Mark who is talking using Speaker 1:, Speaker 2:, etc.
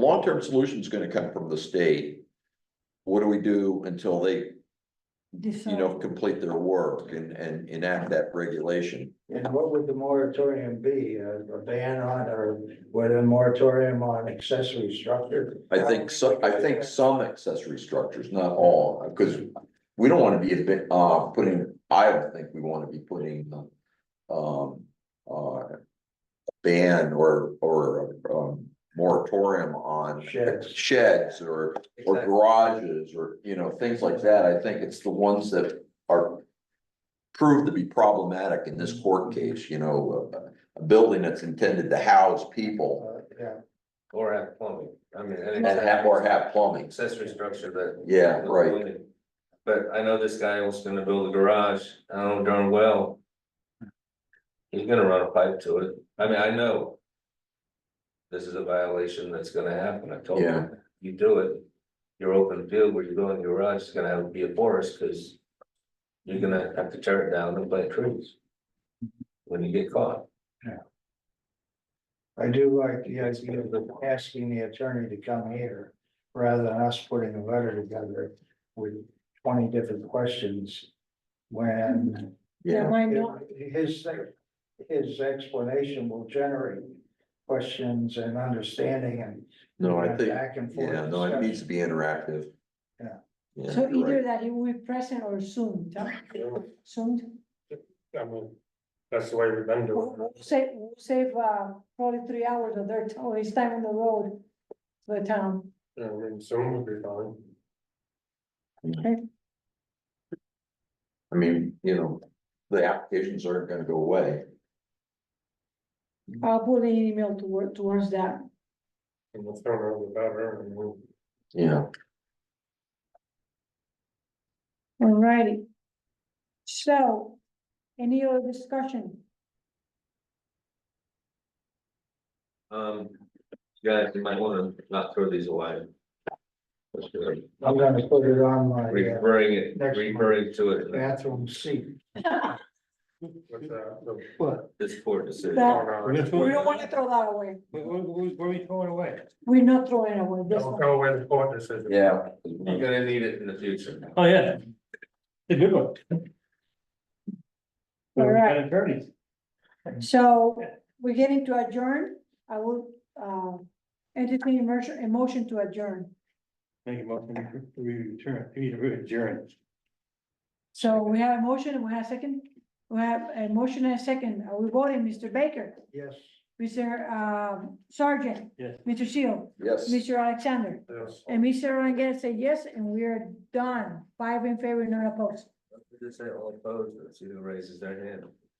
Speaker 1: long-term solution's gonna come from the state. What do we do until they, you know, complete their work and, and enact that regulation?
Speaker 2: And what would the moratorium be? A a ban on or would a moratorium on accessory structure?
Speaker 1: I think so, I think some accessory structures, not all, because we don't wanna be a bit, uh, putting, I don't think we wanna be putting, um, uh, a ban or, or, um, moratorium on
Speaker 2: Sheds.
Speaker 1: sheds or, or garages or, you know, things like that. I think it's the ones that are proved to be problematic in this court case, you know, a- a building that's intended to house people
Speaker 2: Uh, Yeah,
Speaker 3: Or have plumbing, I mean. an
Speaker 1: and have, or have plumbing.
Speaker 3: Accessory structure that.
Speaker 1: Yeah, right.
Speaker 3: But I know this guy was gonna build a garage, I know darn well. He's gonna run a pipe to it, I mean, I know. This is a violation that's gonna happen, I told
Speaker 1: Yeah.
Speaker 3: him, you do it. Your open field where you go in your garage is gonna have to be a forest, cause. You're gonna have to tear it down and plant trees. When you get caught.
Speaker 2: I do like the idea of asking the attorney to come here rather than us putting a letter together with twenty different questions. When
Speaker 1: Yeah.
Speaker 4: why not?
Speaker 2: his, his explanation will generate questions and understanding and.
Speaker 1: No, I think,
Speaker 2: Back and forth.
Speaker 1: yeah, no, it
Speaker 2: discussion.
Speaker 1: needs to be interactive.
Speaker 2: Yeah.
Speaker 1: Yeah,
Speaker 4: So
Speaker 1: you're
Speaker 4: either
Speaker 1: right.
Speaker 4: that it will be present or soon, huh? soon,
Speaker 5: I mean, that's the way we've been
Speaker 4: we'll
Speaker 5: doing
Speaker 4: we'll
Speaker 5: it.
Speaker 4: save, we'll save, uh, probably three hours of their, ti- of his time on the road. um, To the town,
Speaker 5: I mean, soon would be fine.
Speaker 1: I mean, you know, the applications aren't gonna go away.
Speaker 4: I'll put an email toward, towards that,
Speaker 5: And the sooner the better. and we'll-
Speaker 1: Yeah.
Speaker 4: alrighty. So, any other discussion?
Speaker 3: Um, guys, you might wanna not throw these away. Let's do it.
Speaker 2: I'm gonna put it on my uh,
Speaker 3: Referring it,
Speaker 2: Next one.
Speaker 3: referring to it,
Speaker 2: bathroom seat.
Speaker 5: With that, the-
Speaker 2: What?
Speaker 3: this court decision.
Speaker 4: That-
Speaker 5: Oh, no.
Speaker 4: We don't wanna throw that away,
Speaker 2: What, what are we throwing away?
Speaker 4: we're not throwing away this
Speaker 5: Don't
Speaker 4: one,
Speaker 5: go with the court decision.
Speaker 1: Yeah.
Speaker 3: You're gonna need it in the future.
Speaker 6: Oh, yeah. It's a good one.
Speaker 4: All right.
Speaker 6: An attorney.
Speaker 4: so we're getting to adjourn, I will, uh. Entertain a motion, a motion to adjourn,
Speaker 6: Make a motion, we return, we adjourn.
Speaker 4: so we have a motion, and we have a second. We have a motion and a second, are we voting, Mr. Baker?
Speaker 2: Yes.
Speaker 4: Mr. um, Sergeant.
Speaker 6: Yes.
Speaker 4: Mr. Shield,
Speaker 1: Yes.
Speaker 4: Mr. Alexander,
Speaker 5: Yes.
Speaker 4: and Mr. Rangel said yes, and we are done. Five in favor, none opposed.
Speaker 3: Just say all opposed, that's who raises their hand.